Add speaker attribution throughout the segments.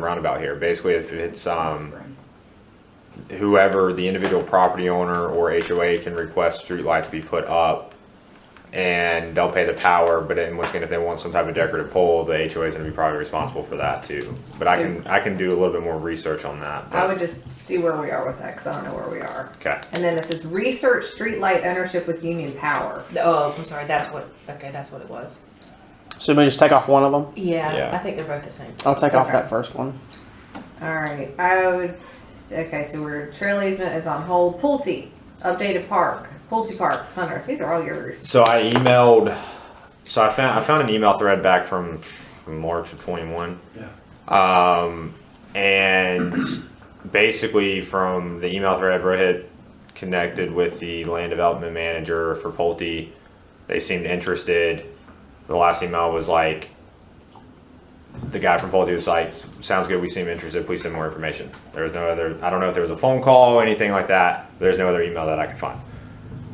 Speaker 1: roundabout here. Basically, if it's, um, whoever, the individual property owner or HOA can request streetlights be put up and they'll pay the power, but in which case, if they want some type of decorative pole, the HOA is gonna be probably responsible for that too. But I can, I can do a little bit more research on that.
Speaker 2: I
Speaker 1: but-
Speaker 2: would just see where we are with that, cause I don't know where we are.
Speaker 1: Okay.
Speaker 2: And then this is research streetlight ownership with union power.
Speaker 3: Oh, I'm sorry. That's what. Okay, that's what it was.
Speaker 4: Should we just take off one of them?
Speaker 3: Yeah,
Speaker 1: Yeah.
Speaker 3: I think they're both the same.
Speaker 4: I'll take off
Speaker 2: Okay.
Speaker 4: that first one.
Speaker 2: Alright, I would, s- okay, so we're, trail easement is on hold, Pulte, updated park, Pulte Park, Hunter, these are all yours.
Speaker 1: So I emailed. So I found I found an email thread back from March of twenty one.
Speaker 5: Yeah.
Speaker 1: Um, and basically from the email thread, Rohit connected with the land development manager for Pulte. They seemed interested. The last email was like, the guy from Pulte was like, "Sounds good. We seem interested. Please send more information." There was no other. I don't know if there was a phone call or anything like that. There's no other email that I could find.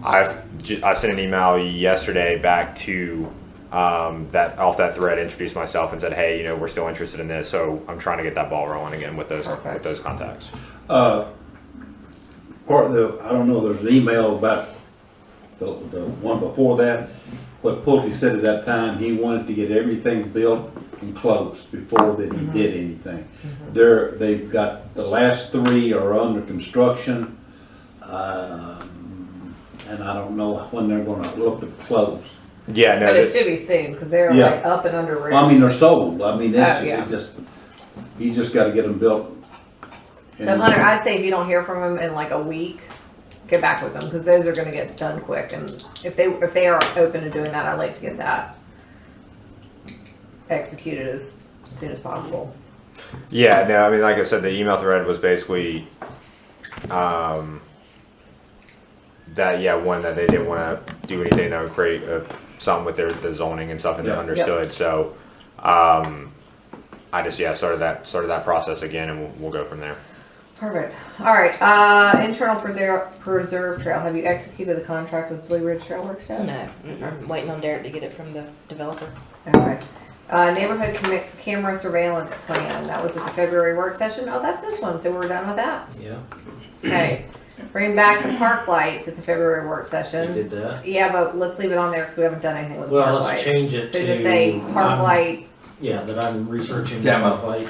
Speaker 1: I've j- I sent an email yesterday back to um, that off that thread, introduced myself and said, hey, you know, we're still interested in this, so I'm trying to get that ball rolling again with those with
Speaker 2: Perfect.
Speaker 1: those contacts.
Speaker 5: Uh, part of the, I don't know, there's an email about the, the one before that. What Pulte said at that time, he wanted to get everything built and closed before that he did anything. There, they've got, the last three are under construction. Um, and I don't know when they're gonna look to close.
Speaker 1: Yeah, no,
Speaker 2: But it
Speaker 1: this,
Speaker 2: should be soon, cause they're
Speaker 5: Yeah.
Speaker 2: like up and under roof.
Speaker 5: Well, I mean, they're sold, I mean, that's,
Speaker 2: Oh, yeah.
Speaker 5: it just, you just gotta get them built.
Speaker 2: So
Speaker 5: And-
Speaker 2: Hunter, I'd say if you don't hear from them in like a week, get back with them because those are gonna get done quick. And if they if they are open to doing that, I'd like to get that executed as soon as possible.
Speaker 1: yeah, no, I mean, like I said, the email thread was basically um, that yeah one that they didn't want to do anything that would create uh, something with their the zoning and stuff, and they
Speaker 5: Yeah.
Speaker 1: understood. So um, I just yeah started that started that process again, and we'll, we'll go from there.
Speaker 2: Perfect. All right. Uh, internal preserve preserve trail. Have you executed the contract with Blue Ridge Trail Workshop?
Speaker 3: No, mm, I'm waiting on Derek to get it from the developer.
Speaker 2: Okay. Uh, neighborhood cam- camera surveillance plan. That was at the February work session. Oh, that's this one. So we're done with that.
Speaker 6: Yeah,
Speaker 2: Okay. Bring back the park lights at the February work
Speaker 6: we
Speaker 2: session.
Speaker 6: did that.
Speaker 2: Yeah, but let's leave it on there because we haven't done anything with
Speaker 6: Well,
Speaker 2: park
Speaker 6: let's
Speaker 2: lights.
Speaker 6: change it
Speaker 2: so
Speaker 6: to,
Speaker 2: just say park
Speaker 6: um,
Speaker 2: light.
Speaker 6: Yeah, that I'm researching.
Speaker 7: Demo.
Speaker 6: Like,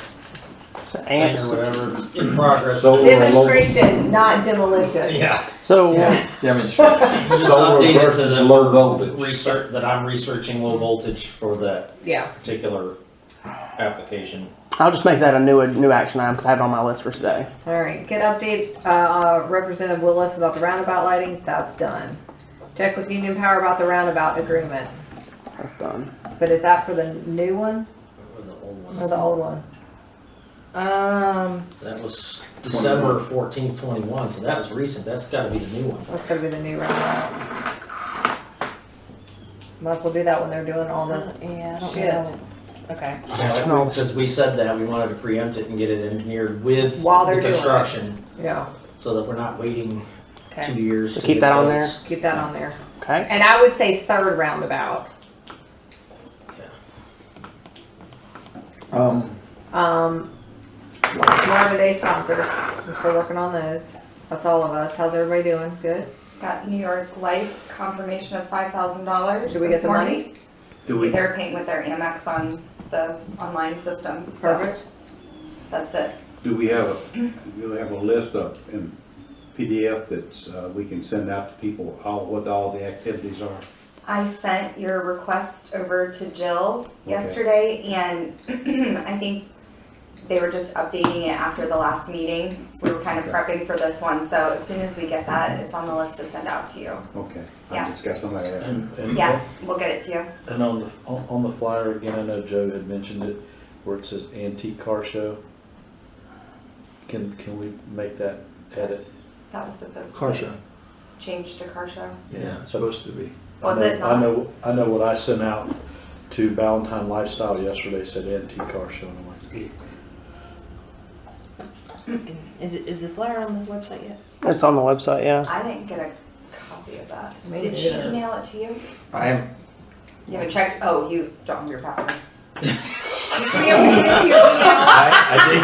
Speaker 4: So,
Speaker 6: thing
Speaker 4: ants.
Speaker 6: or whatever, it's in progress.
Speaker 7: So-
Speaker 2: Demonstration, not demolition.
Speaker 6: Yeah,
Speaker 4: so
Speaker 7: Demonstrate. Solar
Speaker 6: Updated to
Speaker 7: versus
Speaker 6: the-
Speaker 7: low voltage.
Speaker 6: research, that I'm researching low voltage for that
Speaker 2: Yeah.
Speaker 6: particular application.
Speaker 4: I'll just make that a new a new action item because I have it on my list for today.
Speaker 2: All right. Get update uh, Representative Willis about the roundabout lighting. That's done. Check with Union Power about the roundabout agreement.
Speaker 4: That's done.
Speaker 2: But is that for the new one
Speaker 6: Or the old one.
Speaker 2: or the old one?
Speaker 3: Um,
Speaker 6: That was December fourteenth, twenty-one, so that was recent, that's gotta be the new one.
Speaker 2: That's gonna be the new roundabout. Might as well do that when they're doing all the.
Speaker 3: yeah, I don't
Speaker 2: Shit.
Speaker 3: know. Okay.
Speaker 4: No.
Speaker 6: Because we said that, we wanted to preempt it and get it engineered with
Speaker 2: While they're
Speaker 6: the
Speaker 2: doing it.
Speaker 6: construction,
Speaker 2: Yeah.
Speaker 6: so that we're not waiting
Speaker 3: Okay.
Speaker 6: two years.
Speaker 4: So
Speaker 6: to
Speaker 4: keep
Speaker 6: get
Speaker 4: that on
Speaker 6: those.
Speaker 2: Keep that on there.
Speaker 4: Okay.
Speaker 2: And I would say third roundabout.
Speaker 7: Um,
Speaker 2: Um, Marvin Day sponsors. We're still working on those. That's all of us. How's everybody doing? Good.
Speaker 8: Got New York Life confirmation of five thousand dollars.
Speaker 2: Did we get the money?
Speaker 5: Do we-
Speaker 8: They're paying with their Amex on the online system, so
Speaker 2: Perfect.
Speaker 8: that's it.
Speaker 5: Do we have, a do we have a list of, in PDF that's, uh, we can send out to people, all, what all the activities are?
Speaker 8: I sent your request over to Jill yesterday, and I think they were just updating it after the last meeting. We were kind of prepping for this one, so as soon as we get that, it's on the list to send out to you.
Speaker 5: Okay, I
Speaker 8: Yeah.
Speaker 5: just got somebody there.
Speaker 9: And, and,
Speaker 8: Yeah, we'll get it to you.
Speaker 9: and on the, on on the flyer again, I know Joe had mentioned it, where it says antique car show. Can, can we make that edit?
Speaker 8: That was supposed to
Speaker 7: car
Speaker 8: be
Speaker 7: show.
Speaker 8: changed to car show.
Speaker 9: Yeah.
Speaker 7: Supposed to be.
Speaker 9: I
Speaker 8: Was
Speaker 9: know-
Speaker 8: it
Speaker 9: I
Speaker 8: not?
Speaker 9: know, I know what I sent out to Valentine Lifestyle yesterday said antique car show, and I'm like,
Speaker 3: Is it is the flyer on the website yet?
Speaker 4: It's on the website. Yeah.
Speaker 8: I didn't get a copy of that.
Speaker 2: Me
Speaker 8: Did she
Speaker 2: neither.
Speaker 8: email it to you?
Speaker 7: I am,
Speaker 8: You haven't checked, oh, you don't have your password.
Speaker 2: Did we ever get it to your email?
Speaker 7: I, I did